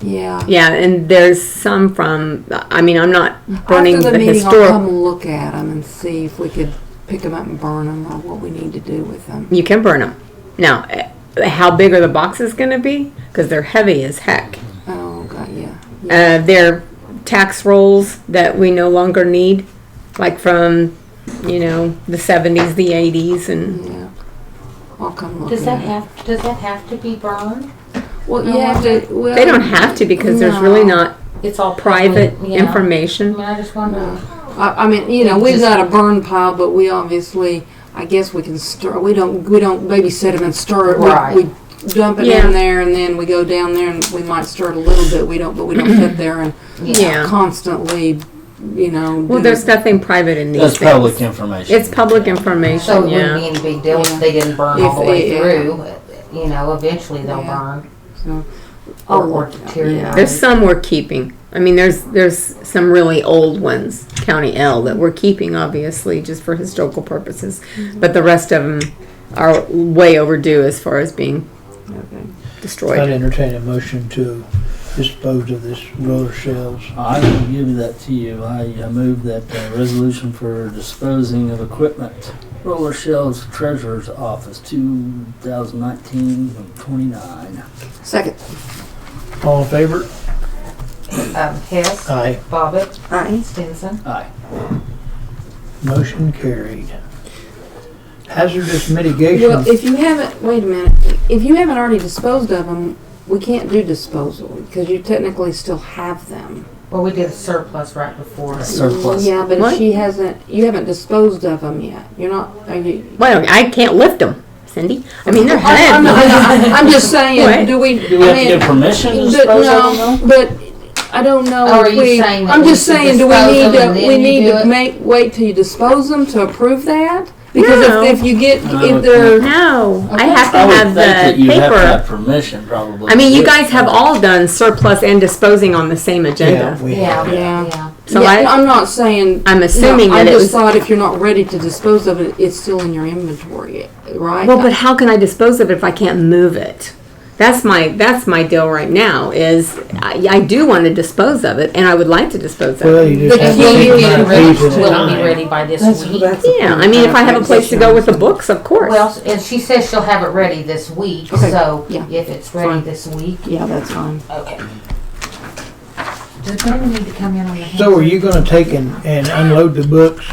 Yeah. Yeah, and there's some from, I mean, I'm not burning After the the meeting, I'll come historic. look at them and see if we could pick them up and burn them or what we need to do with them. You can burn them. Now, eh, how big are the boxes gonna be? Because they're heavy as heck. Oh, God, yeah. Uh, they're tax rolls that we no longer need, like from, you know, the seventies, the eighties and, Yeah. I'll come look Does at that it. have, does that have to be burned? Well, no, you have to, well. they don't have to because there's really No. not It's all private yeah. I information. mean, I just wonder, Mm-hmm. I, I mean, you know, we've got a burn pile, but we obviously, I guess we can stir, we don't, we don't babysit them and stir it. We- Right. We dump it Yeah. in there and then we go down there and we might stir it a little bit. We don't, but we don't sit there and Yeah. constantly, you know. Well, do- there's nothing private in these That's things. public information. It's public so information, it yeah. wouldn't be any big deal if they didn't burn all the If way they- through. You know, eventually they'll Yeah. burn So, I'll or or look at it, deteriorate. There's some we're keeping. I mean, there's there's some really old ones, County L, that we're keeping obviously just for historical purposes, Mm-hmm. but the rest of them are way overdue as far as being I'd destroyed. entertain a motion to dispose of this roller shells. Oh, I will give that to you. I uh, move that uh, resolution for disposing of equipment. Roller shelves treasurer's office, 2019-29. Second. All in favor? Um, Hess, Aye. Bobbitt, Aye. Stinson. Aye. Motion carried. Hazardous mitigation. Well, if you haven't, wait a minute, if you haven't already disposed of them, we can't do disposal because you technically still have them. Well, we did a surplus right before. Surplus. Yeah, but What? if she hasn't, you haven't disposed of them yet. You're not, are you? Well, I can't lift them, Cindy. I mean, they're I- I'm, not- heavy. I'm I'm just What? saying, do we? Do we have I to mean, give permission to but dispose of no, them? But I don't know. Or are if you we- saying that I'm we just should saying, do we dispose need them to, and then we you need do to it? make, wait till you dispose them to approve that? Because No. if, if you get, No, if it's they're, No, I have to I would have think that the you have to have paper. permission probably. I mean, to you do it. guys have all done surplus and disposing on the same Yeah, agenda. we Yeah, have. Yeah. yeah. So Yeah, I, I'm not saying. I'm No, assuming that I it just was- thought if you're not ready to dispose of it, it's still in your inventory, right? Well, but how can I dispose of it if I can't move it? That's my that's my deal right now. Is I, I do want to dispose of it, and I would like to dispose of Well, it. you But just have will to it take be them out ready, of these at will it a be time. ready by this That's, week? that's. Yeah, I mean, if I have a place to go with the books, of course. Well, and she says she'll have it ready this week, Okay, so yeah. if it's ready Fine. this week, Yeah, that's fine. okay. Does Brenda need to come in on the? So are you gonna take and, and unload the books?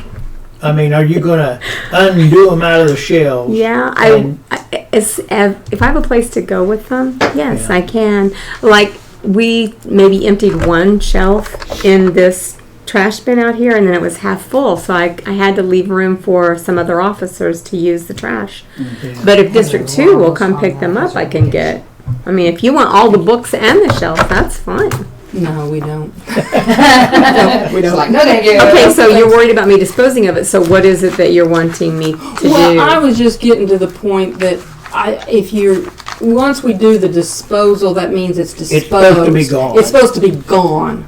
I mean, are you gonna undo them out of the shelves? yeah, I, I as, as- if I have a place to go with them, yes, I can. Like we maybe emptied one shelf in this trash bin out here, and then it was half full, so I I had to leave room for some other officers to use the trash. But if District Two will come pick them up, I can get, I mean, if you want all the books and the shelf, that's fine. No, we don't. We don't. Like, no, thank you. Okay, so you're worried about me disposing of it, so what is it that you're wanting me to Well, I do? was just getting to the point that I, if you're, once we do the disposal, that means it's disposed. supposed to be gone. It's supposed to be gone,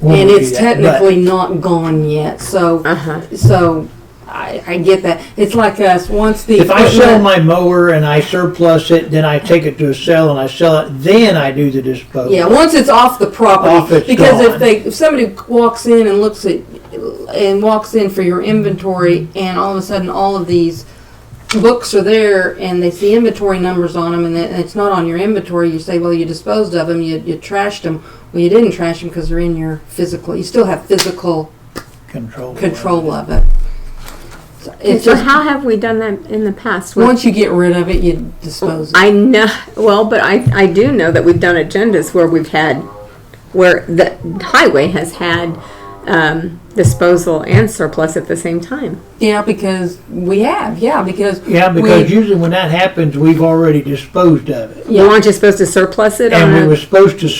When and we do it's that, but- technically not gone yet, so, Uh-huh. so I, I get that. It's like us, once the. If I sell equipment- my mower and I surplus it, then I take it to a sale and I sell it, then I do the disposal. Yeah, once it's off the property, Off it's because if gone. they if somebody walks in and looks at and walks in for your inventory, and all of a sudden all of these books are there, and they see inventory numbers on them, and it- and it's not on your inventory, you say, well, you disposed of them, you, you trashed them. Well, you didn't trash them because they're in your physical. You still have physical Control. control of it. So it's So just how have we done that in the past? With- once you get rid of it, you dispose. of it. I know, well, but I, I do know that we've done agendas where we've had, where the highway has had, um, disposal and surplus at the same time. Yeah, because we have. Yeah, because Yeah, we- because usually when that happens, we've already disposed of it. You aren't you supposed to surplus it And we on were a, supposed to Yeah,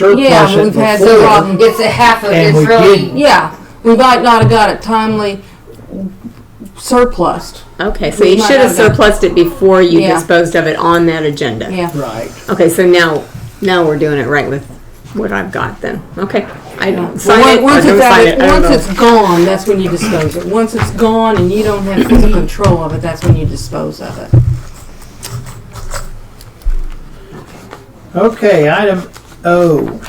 surplus but it we've had the before. problem. It's a half of, And it's we really, didn't. Yeah, we might not have got it timely surplused. okay, so we you might should have have done- surplused it before you Yeah. disposed of it on that agenda. Yeah. Right. Okay, so now, now we're doing it right with what I've got then. Okay, I don't sign Well, it or once don't it's out- sign it, I don't Once know. it's gone, that's when you dispose of it. Once it's gone and you don't have physical control of it, that's when you dispose of it. Okay, item O,